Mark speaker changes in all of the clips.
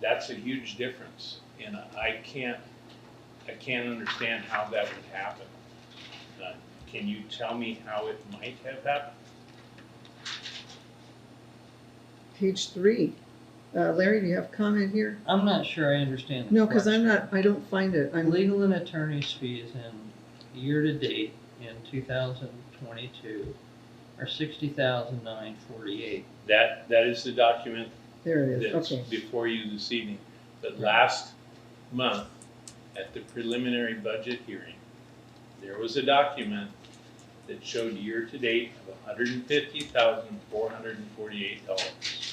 Speaker 1: that's a huge difference, and I can't, I can't understand how that would happen. Uh, Can you tell me how it might have happened?
Speaker 2: Page three. Uh, Larry, do you have comment here?
Speaker 3: I'm not sure I understand. the
Speaker 2: No, because I'm
Speaker 3: question.
Speaker 2: not, I don't find it. I'm,
Speaker 3: Legal and attorney's fees in year-to-date in two thousand twenty-two are sixty thousand nine forty-eight.
Speaker 1: That, that is the document
Speaker 2: there it is,
Speaker 1: that's
Speaker 2: okay.
Speaker 1: before you this evening. But
Speaker 3: Right.
Speaker 1: last month, at the preliminary budget hearing, there was a document that showed year-to-date of hundred and fifty thousand, four hundred and forty-eight dollars.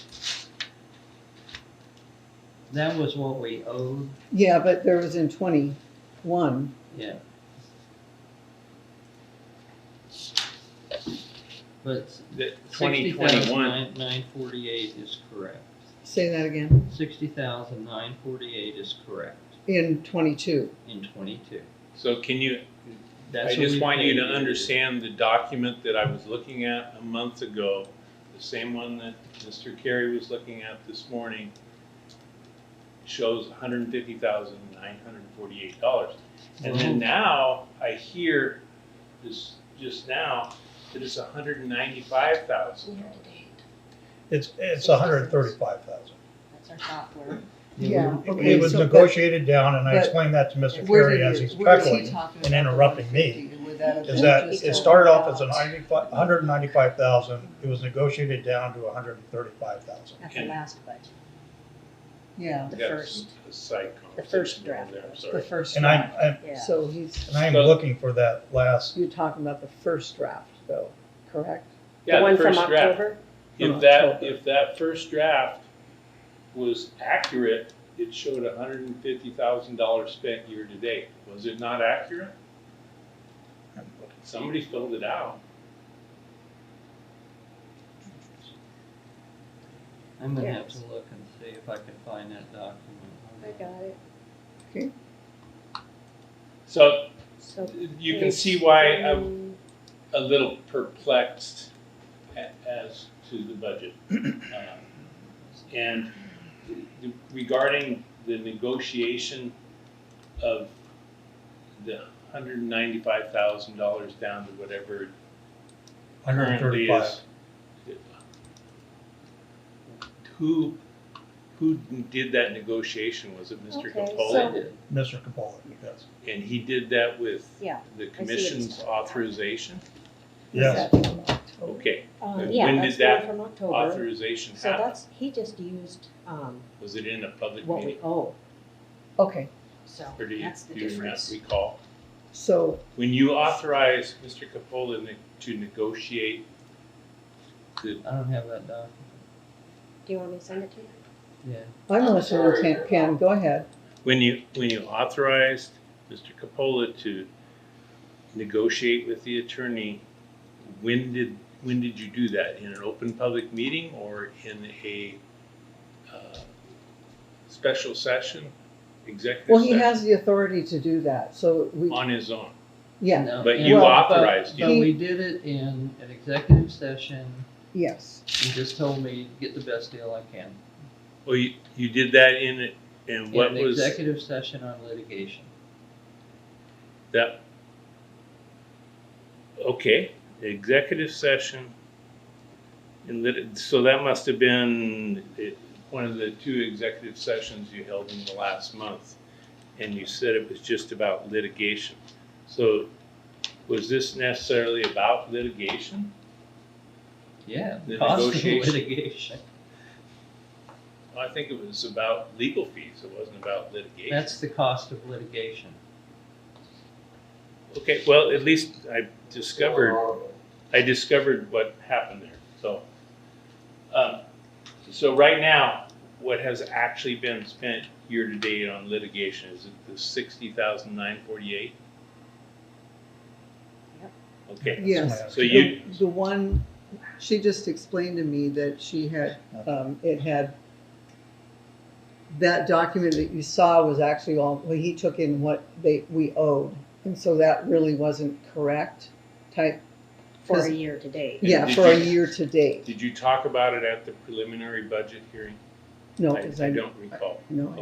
Speaker 3: That was what we owed,
Speaker 2: Yeah, but there was in twenty-one.
Speaker 3: yeah. But
Speaker 1: That
Speaker 3: sixty
Speaker 1: twenty
Speaker 3: thousand
Speaker 1: twenty-one,
Speaker 3: nine, nine forty-eight is correct.
Speaker 2: Say that again.
Speaker 3: Sixty thousand nine forty-eight is correct
Speaker 2: In twenty-two.
Speaker 3: in twenty-two.
Speaker 1: so can you,
Speaker 3: That's
Speaker 1: I
Speaker 3: what
Speaker 1: just
Speaker 3: we
Speaker 1: want you to
Speaker 3: paid.
Speaker 1: understand the document that I was looking at a month ago, the same one that Mr. Carey was looking at this morning, shows hundred and fifty thousand nine hundred and forty-eight dollars. And then now I hear this, just now, that it's hundred and ninety-five thousand dollars.
Speaker 4: It's, it's a hundred and thirty-five thousand.
Speaker 5: That's our software.
Speaker 2: Yeah. Okay,
Speaker 4: It was
Speaker 2: so- but-
Speaker 4: negotiated down, and I
Speaker 2: but-
Speaker 4: explained that to Mr.
Speaker 2: Where did
Speaker 4: Carey as
Speaker 2: it-
Speaker 4: he's
Speaker 2: where is he
Speaker 4: calculating,
Speaker 5: talking
Speaker 4: and
Speaker 5: about the
Speaker 4: interrupting me,
Speaker 5: 150? Would that
Speaker 4: is that
Speaker 5: include
Speaker 4: it
Speaker 5: just
Speaker 4: started off
Speaker 5: the
Speaker 4: as a
Speaker 5: balance?
Speaker 4: ninety-five, hundred and ninety-five thousand, it was negotiated down to hundred and thirty-five thousand.
Speaker 5: At the last budget,
Speaker 2: Yeah,
Speaker 5: the
Speaker 1: Yes,
Speaker 5: first,
Speaker 1: a Side
Speaker 5: the
Speaker 1: conversation
Speaker 5: first
Speaker 1: going
Speaker 5: draft.
Speaker 1: there, I'm
Speaker 5: The
Speaker 1: sorry.
Speaker 5: first
Speaker 4: And I'm,
Speaker 5: draft,
Speaker 4: I'm,
Speaker 5: yeah.
Speaker 2: so he's,
Speaker 4: and I'm
Speaker 1: So-
Speaker 4: looking for that last,
Speaker 2: you're talking about the first draft though, correct?
Speaker 1: Yeah,
Speaker 6: The one from
Speaker 1: first draft.
Speaker 6: October?
Speaker 1: If
Speaker 2: From
Speaker 1: that,
Speaker 2: October.
Speaker 1: if that first draft was accurate, it showed hundred and fifty thousand dollars spent year to date. Was it not accurate? Somebody filled it out.
Speaker 3: I'm gonna have
Speaker 6: Yes.
Speaker 3: to look and see if I can find that document.
Speaker 6: I got it.
Speaker 1: So
Speaker 6: So.
Speaker 1: you can
Speaker 6: page
Speaker 1: see why uh, I'm a
Speaker 6: three-
Speaker 1: little perplexed a- as to the budget. Um, And regarding the negotiation of the hundred and ninety-five thousand dollars down to whatever it
Speaker 4: hundred and
Speaker 1: currently
Speaker 4: thirty-five.
Speaker 1: is. Who, who did that negotiation? Was it Mr.
Speaker 6: Okay,
Speaker 3: I
Speaker 1: Capola?
Speaker 3: did.
Speaker 4: Mr. Capola, yes.
Speaker 1: And he did that with
Speaker 6: Yeah,
Speaker 1: the
Speaker 6: what he's
Speaker 1: commission's
Speaker 6: talking about.
Speaker 1: authorization?
Speaker 4: Yes,
Speaker 1: Okay,
Speaker 6: uh,
Speaker 1: When
Speaker 6: yeah,
Speaker 1: did
Speaker 6: that's the
Speaker 1: that
Speaker 6: one from October.
Speaker 1: authorization
Speaker 6: So
Speaker 1: happened.
Speaker 6: that's, he just used, um,
Speaker 1: Was it in a public
Speaker 6: what we
Speaker 1: meeting?
Speaker 6: owe,
Speaker 2: Okay,
Speaker 6: so
Speaker 1: Or do you,
Speaker 6: that's the
Speaker 1: do you not
Speaker 6: difference.
Speaker 1: recall?
Speaker 2: so,
Speaker 1: When you authorized Mr. Capola ne- to negotiate the,
Speaker 3: I don't have that document,
Speaker 6: Do you want me to send it to you?
Speaker 3: yeah.
Speaker 2: I'm listening, Ken- Ken, go ahead.
Speaker 1: when you, when you authorized Mr. Capola to negotiate with the attorney, when did, when did you do that? In an open public meeting or in a, uh, special session, executive
Speaker 2: Well, he has
Speaker 1: session?
Speaker 2: the authority to do that, so we,
Speaker 1: On his own?
Speaker 2: yeah,
Speaker 3: No,
Speaker 1: But
Speaker 3: and-
Speaker 1: you
Speaker 3: but-
Speaker 1: authorized
Speaker 3: But
Speaker 2: it.
Speaker 3: we did it in an executive session,
Speaker 2: yes.
Speaker 3: you just told me, get the best deal I can.
Speaker 1: Well, you, you did that in, it- and what
Speaker 3: In an
Speaker 1: was?
Speaker 3: executive session on litigation.
Speaker 1: That, okay, executive session. And lit, so that must have been it- one of the two executive sessions you held in the last month. And you said it was just about litigation. So was this necessarily about litigation?
Speaker 3: Yeah,
Speaker 1: The
Speaker 3: cost of
Speaker 1: negotiation.
Speaker 3: litigation.
Speaker 1: I think it was about legal fees. It wasn't about litigation.
Speaker 3: That's the cost of litigation.
Speaker 1: Okay, well, at least I discovered, I discovered what happened there, so. um, So right now, what has actually been spent year-to-date on litigation, is it the sixty thousand nine forty-eight?
Speaker 6: Yep.
Speaker 1: Okay,
Speaker 2: Yes.
Speaker 1: so you,
Speaker 2: The- The one, she just explained to me that she had, um, it had, that document that you saw was actually all, well, he took in what they, we owed. And so that really wasn't correct type,
Speaker 6: For a
Speaker 2: Because-
Speaker 6: year to date.
Speaker 2: yeah,
Speaker 1: did
Speaker 2: for a
Speaker 1: you-
Speaker 2: year to date.
Speaker 1: did you talk about it at the preliminary budget hearing?
Speaker 2: No,
Speaker 1: I-
Speaker 2: because
Speaker 1: I
Speaker 2: I,
Speaker 1: don't recall.
Speaker 2: no,